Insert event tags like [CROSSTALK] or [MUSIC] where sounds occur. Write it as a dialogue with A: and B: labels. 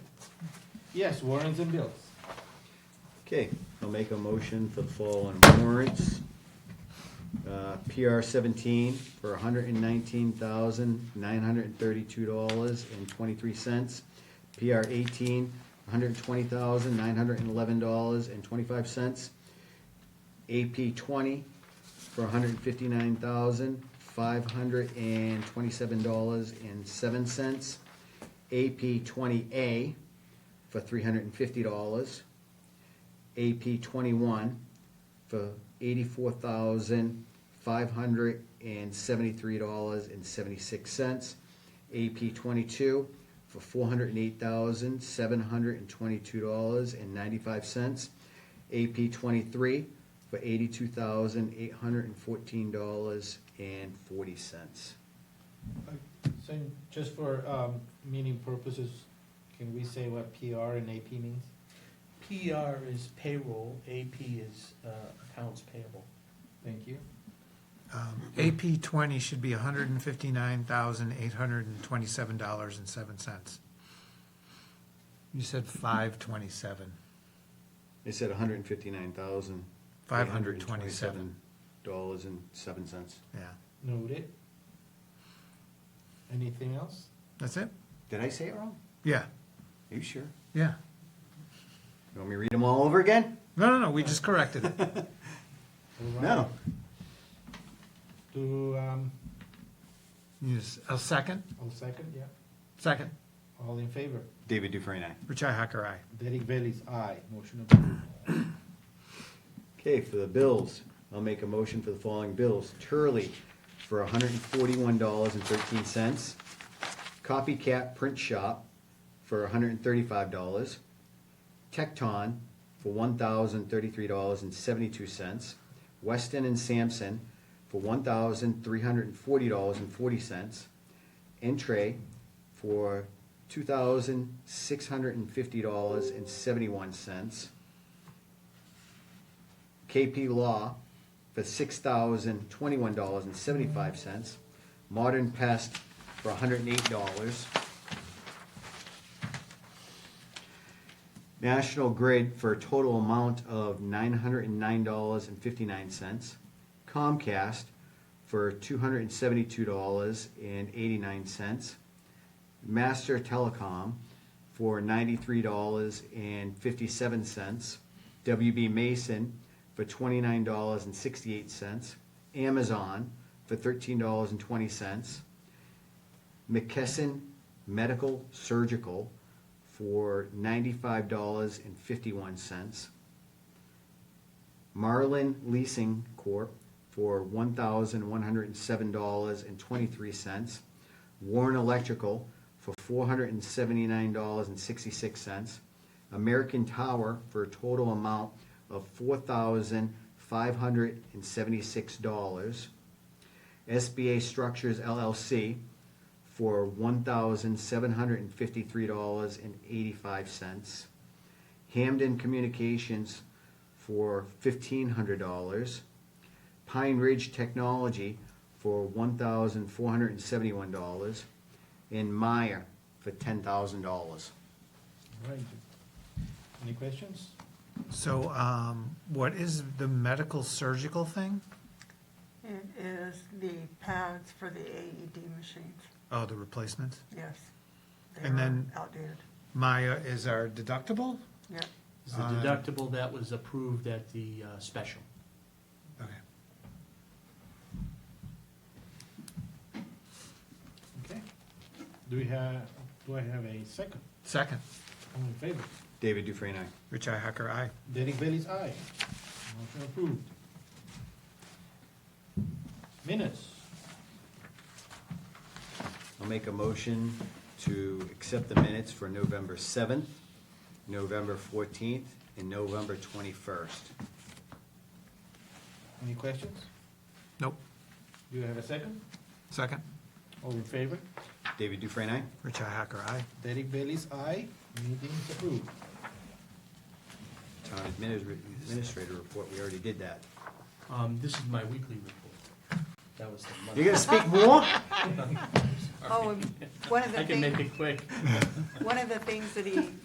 A: Yes, warrants and bills.
B: Okay, I'll make a motion for the following warrants. Uh, PR seventeen for hundred and nineteen thousand, nine hundred and thirty-two dollars and twenty-three cents. PR eighteen, hundred and twenty thousand, nine hundred and eleven dollars and twenty-five cents. AP twenty for hundred and fifty-nine thousand, five hundred and twenty-seven dollars and seven cents. AP twenty A for three hundred and fifty dollars. AP twenty-one for eighty-four thousand, five hundred and seventy-three dollars and seventy-six cents. AP twenty-two for four hundred and eight thousand, seven hundred and twenty-two dollars and ninety-five cents. AP twenty-three for eighty-two thousand, eight hundred and fourteen dollars and forty cents.
A: So just for um, meaning purposes, can we say what PR and AP means?
C: PR is payroll, AP is uh, accounts payable.
A: Thank you.
D: Um, AP twenty should be hundred and fifty-nine thousand, eight hundred and twenty-seven dollars and seven cents. You said five twenty-seven.
B: They said a hundred and fifty-nine thousand.
D: Five hundred and twenty-seven.
B: Dollars and seven cents.
D: Yeah,
A: Noted. Anything else?
D: that's it?
B: Did I say it wrong?
D: Yeah,
B: Are you sure?
D: yeah.
B: You want me to read them all over again?
D: No, no, no, we just corrected it. [LAUGHS]
A: All right.
B: No.
A: Do, um,
D: You s- A second,
A: I'll second, yeah.
D: second.
A: All in favor?
B: David Dufresne, aye.
D: Richi Hacker, aye.
A: Derek Bailey's aye. Motion approved.
B: Okay, for the bills, I'll make a motion for the following bills. Turley for hundred and forty-one dollars and thirteen cents. Copycat Print Shop for hundred and thirty-five dollars. Tecton for one thousand thirty-three dollars and seventy-two cents. Weston and Sampson for one thousand three hundred and forty dollars and forty cents. Entree for two thousand six hundred and fifty dollars and seventy-one cents. KP Law for six thousand twenty-one dollars and seventy-five cents. Modern Pest for hundred and eight dollars. National Grid for a total amount of nine hundred and nine dollars and fifty-nine cents. Comcast for two hundred and seventy-two dollars and eighty-nine cents. Master Telecom for ninety-three dollars and fifty-seven cents. WB Mason for twenty-nine dollars and sixty-eight cents. Amazon for thirteen dollars and twenty cents. McKesson Medical Surgical for ninety-five dollars and fifty-one cents. Marlin Leasing Corp. for one thousand one hundred and seven dollars and twenty-three cents. Warren Electrical for four hundred and seventy-nine dollars and sixty-six cents. American Tower for a total amount of four thousand five hundred and seventy-six dollars. SBA Structures LLC for one thousand seven hundred and fifty-three dollars and eighty-five cents. Hamden Communications for fifteen hundred dollars. Pine Ridge Technology for one thousand four hundred and seventy-one dollars. And Meyer for ten thousand dollars.
A: All right. Any questions?
D: So, um, what is the medical surgical thing?
E: It is the pads for the AED machines,
D: Oh, the replacements?
E: yes. They
D: And
E: are
D: then-
E: Outdated,
D: Maya is our deductible?
E: yeah.
C: It's the
D: Uh,
C: deductible that was approved at the uh, special.
D: Okay.
A: Okay. Do we have, do I have a second?
D: Second,
A: All in favor?
B: David Dufresne, aye.
D: Richi Hacker, aye.
A: Derek Bailey's aye. Motion approved. Minutes.
B: I'll make a motion to accept the minutes for November seventh, November fourteenth, and November twenty-first.
A: Any questions?
D: Nope,
A: Do you have a second?
D: second,
A: All in favor?
B: David Dufresne, aye?
D: Richi Hacker, aye.
A: Derek Bailey's aye. Meeting's approved.
B: Town administr- administrator report, we already did that.
C: Um, This is my weekly report. That was the
B: You're gonna
C: month.
B: speak more?
E: Oh, and one of the
C: I can make
E: things,
C: it quick.
E: one of the things that he